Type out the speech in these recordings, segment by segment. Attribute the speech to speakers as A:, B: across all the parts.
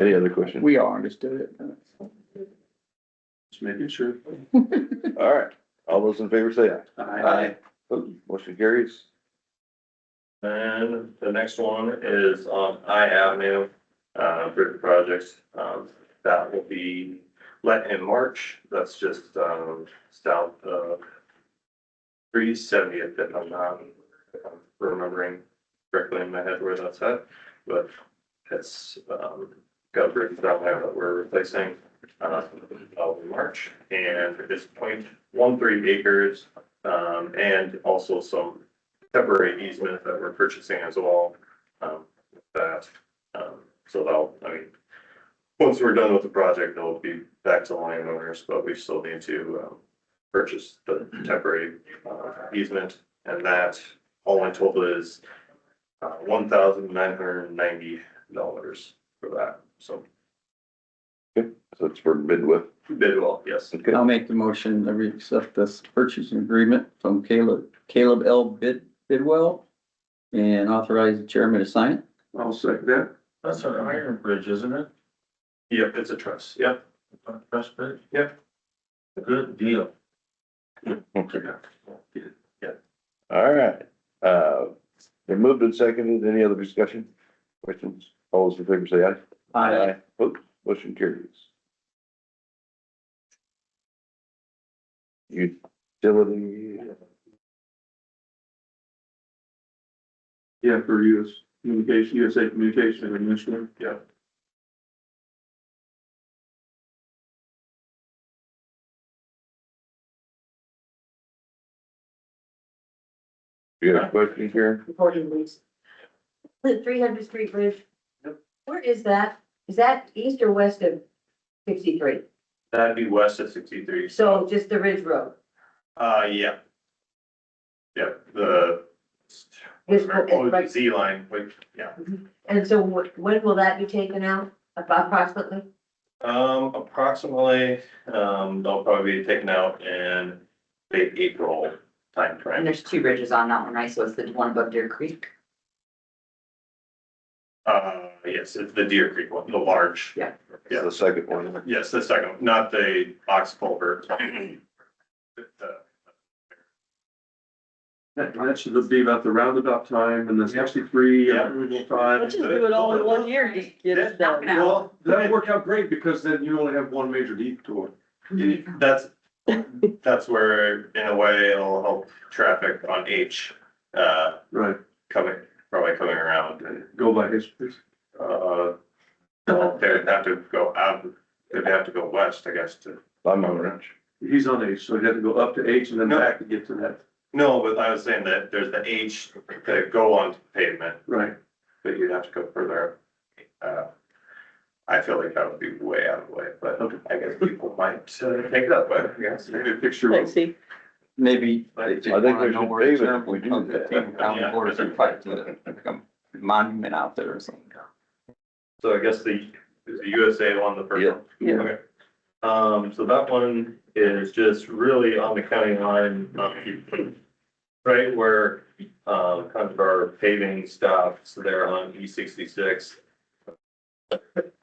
A: Any other questions?
B: We all understood it.
C: Just making sure.
A: All right, all those in favor say aye.
C: Aye.
A: Opposed? Motion carries.
D: And the next one is on I Avenue, uh, bridge projects, um, that will be let in March, that's just, um, south of three seventieth, if I'm not if I'm remembering correctly in my head where that's at, but it's, um, got bridges down there that we're replacing, uh, in March, and it's point one three acres, um, and also some temporary easement that we're purchasing as well. Um, with that, um, so that'll, I mean, once we're done with the project, it'll be back to landowners, but we still need to, um, purchase the temporary, uh, easement. And that, all in total is, uh, one thousand nine hundred and ninety dollars for that. So
A: So it's for Midwest.
D: bid well, yes.
A: Okay,
B: I'll make the motion that we accept this purchasing agreement from Caleb, Caleb L. Bid, Bidwell. And authorize the chairman to sign it.
C: I'll second that.
E: That's an iron bridge, isn't it?
D: Yep, it's a trust, yep.
E: A Press bridge?
D: Yep.
E: Good deal.
A: all right. Uh, they moved and seconded. Any other discussion? Questions? All those in favor say aye. Opposed? Motion carries. Utility,
C: Yeah, for US Communication, USA Communication Commissioner.
D: Yeah.
A: you got a question here?
F: Reporting leaks. The three hundred street bridge.
D: Yep.
F: Where is that? Is that east or west of sixty-three?
D: That'd be west of sixty-three.
F: So just the Ridge Road.
D: Uh, yeah. Yep, the.
F: It's-
D: Oh,
F: it's
D: the
F: right-
D: Z line, which, yeah,
F: And so wh- when will that be taken out approximately?
D: um, approximately, um, they'll probably be taken out in late April
G: And
D: timeframe.
G: there's two bridges on that one, right? So it's the one above Deer Creek.
D: Uh, yes, it's the Deer Creek one, the large.
G: Yeah.
A: Yeah,
D: Yeah,
A: the second one.
D: yes, the second, not the ox culvert. The-
C: That, that should be about the roundabout time and the sixty-three
D: Yeah.
C: approval time.
H: Let's just do it all in one year, just get it done.
C: Well, that worked out great because then you only have one major deed to it.
D: That's, that's where, in a way, it'll help traffic on H, uh,
C: Right,
D: coming, probably coming around and
C: go by history.
D: Uh, well, they'd have to go out, they'd have to go west, I guess, to.
A: I'm on ranch.
C: He's on H, so he had to go up to H and then
D: No.
C: back to get to that.
D: No, but I was saying that there's the H that go onto pavement,
C: Right,
D: but you'd have to go further. Uh, I feel like that would be way out of the way, but
C: Okay.
D: I guess people might uh, take it up, I guess.
C: maybe a picture
H: Let's
C: of.
H: see.
B: Maybe.
D: I
B: they just
A: think we
B: wanna know
A: should
B: where the
A: save it if
B: term
A: we do
B: of the
A: that.
B: Table County Board of Supervisors, like a Monument out there or something.
D: So I guess the, is the USA one the first one?
B: Yeah. Yeah.
D: Okay. Um, so that one is just really on the county line, um, right where, um, kind of our paving stops there on E sixty-six.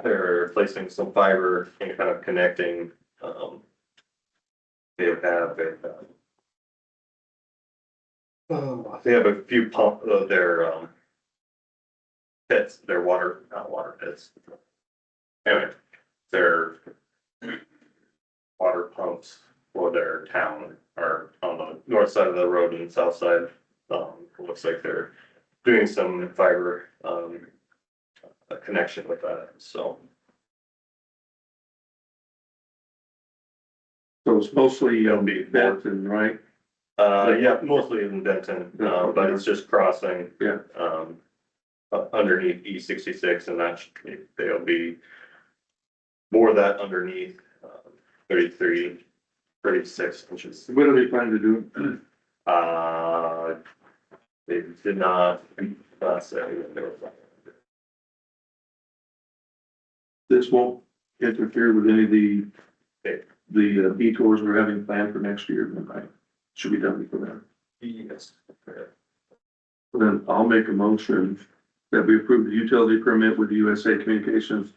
D: They're placing some fiber and kind of connecting, um, they have a, uh, Oh, they have a few pump, uh, their, um, pits, their water, not water pits. Anyway, their water pumps for their town are on the north side of the road and south side. Um, it looks like they're doing some fiber, um, uh, connection with that, so.
C: So it's mostly,
D: It'll
C: um,
D: be-
C: Benton, right?
D: Uh, yeah, mostly in Benton, uh, but it's just crossing.
C: Yeah.
D: Um, uh, underneath E sixty-six and that's, they'll be more that underneath, um, thirty-three, thirty-six inches.
C: What are they planning to do?
D: Uh, they did not, not say that they were.
C: This won't interfere with any of the,
D: Okay.
C: the uh, detours we're having planned for next year, then, right? Should be done before then.
D: Yes.
C: Then I'll make a motion that we approve the utility permit with USA Communications